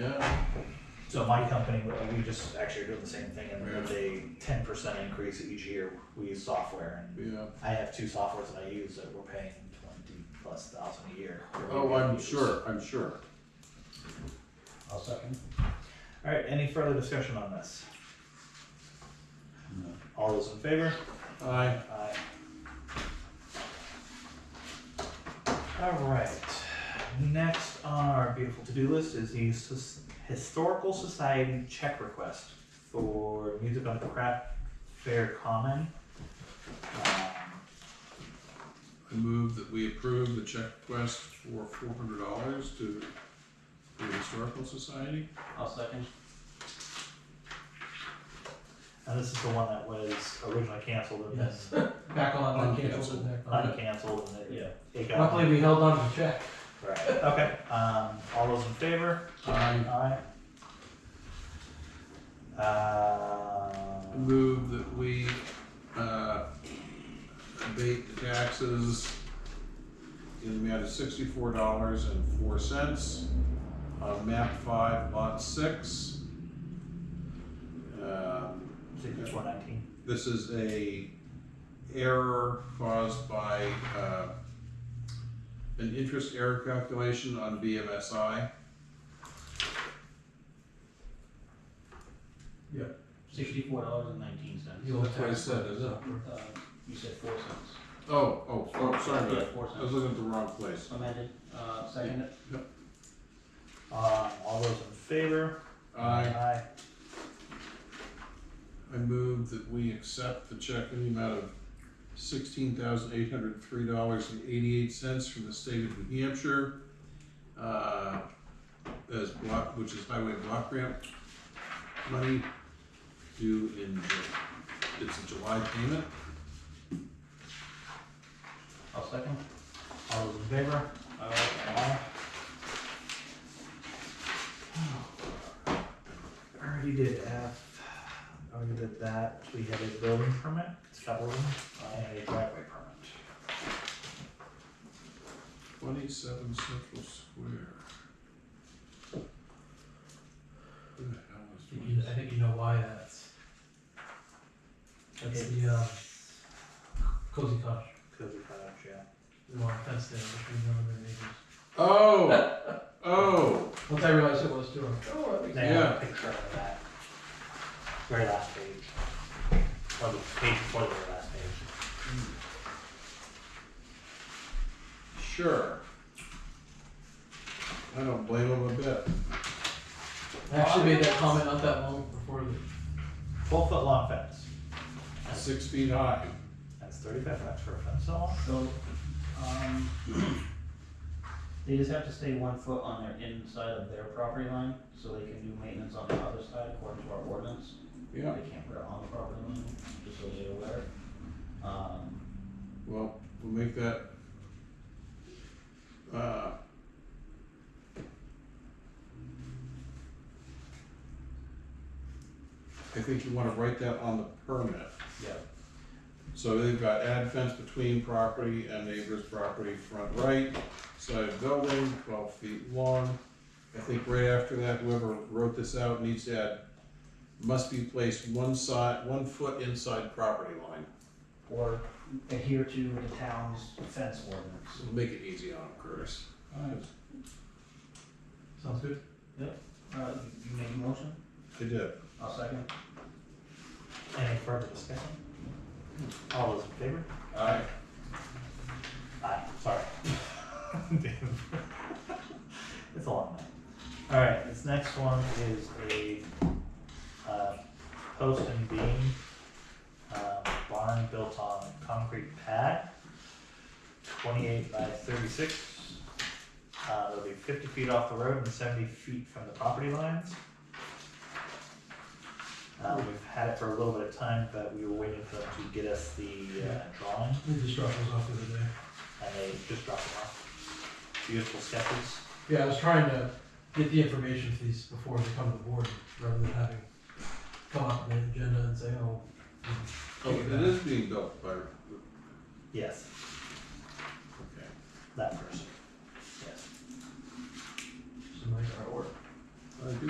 Yeah, So my company, we just actually are doing the same thing, and it's a ten percent increase each year. We use software, and yeah. I have two softwares that I use that we're paying twenty plus thousand a year. that we Oh, I'm use. sure, I'm sure. I'll second. All right, any further discussion on this? No. All those in favor? I, Aye. All right, next on our beautiful to-do list is the Sus- Historical Society check request for music on the craft fair common. Um, I move that we approve the check request for four hundred dollars to the Historical Society. I'll second. And this is the one that was originally canceled and then Yes. Back on, I canceled it back on. uncanceled and it, it got. Luckily, we held on to the check. Right, okay, um, all those in favor? I Aye. Uh, move that we, uh, abate the taxes in the amount of sixty-four dollars and four cents on map five, lot six. Um, sixty-four nineteen. This is a error caused by uh, an interest error calculation on BMSI. Sixty-four dollars and nineteen cents. That's what I said, is it? Uh, you said four cents. Oh, oh, oh, sorry about Yeah, that. four I was cents. looking at the wrong place. Amended, uh, second it. Um, all those in favor? I, I move that we accept the check in the amount of sixteen thousand eight hundred three dollars and eighty-eight cents from the state of New Hampshire. uh, As block, which is highway block grant money due in, Ju- it's a July payment. I'll second. All those in favor? Aye. Already did F, already did that, we have a building permit, Scott Wilson, and a driveway permit. Twenty-seven Central Square. Who the hell is doing I think you know why that's. That's the, uh, cozy cottage. Cozy cottage, yeah. We want a fence there between them and their neighbors. Oh, oh, Once I realized it was too, I'm like, oh, that'd be- They have Yeah. a picture of that. Very last page. Or the page before the very last page. sure. I don't blame him a bit. I actually made that comment not that long before the, Twelve foot long fence, Six feet high. that's thirty-five bucks for a fence all. So, um, they just have to stay one foot on their inside of their property line, so they can do maintenance on the other side according to our ordinance. Yeah, They can't put it on the property line, just so they're aware. Um, well, we'll make that. Uh, I think you wanna write that on the permit. yeah, So they've got add fence between property and neighbor's property, front right, side of building, twelve feet long. I think right after that, whoever wrote this out needs to add, must be placed one side, one foot inside property line. or adhere to the town's fence ordinance. It'll Make it easy on them, Curtis. I sounds good. Uh, you you made a motion? did. I'll second. Any further discussion? All those in favor? Aye. Aye, sorry. It's a long night. Alright, this next one is a, uh, post and beam, uh, barn built on concrete pad, twenty-eight by thirty-six. Uh, it'll be fifty feet off the road and seventy feet from the property lines. Uh, we've had it for a little bit of time, but we were waiting for them to get us the, uh, drawing We just dropped those off the other day. and they Uh, just dropped them off. Beautiful sketches. Yeah, I was trying to get the information for these before they come to the board, rather than having come up with an agenda and say, oh. Oh, it is being built by, okay. Yes, that person. Yes. Some nice artwork. I do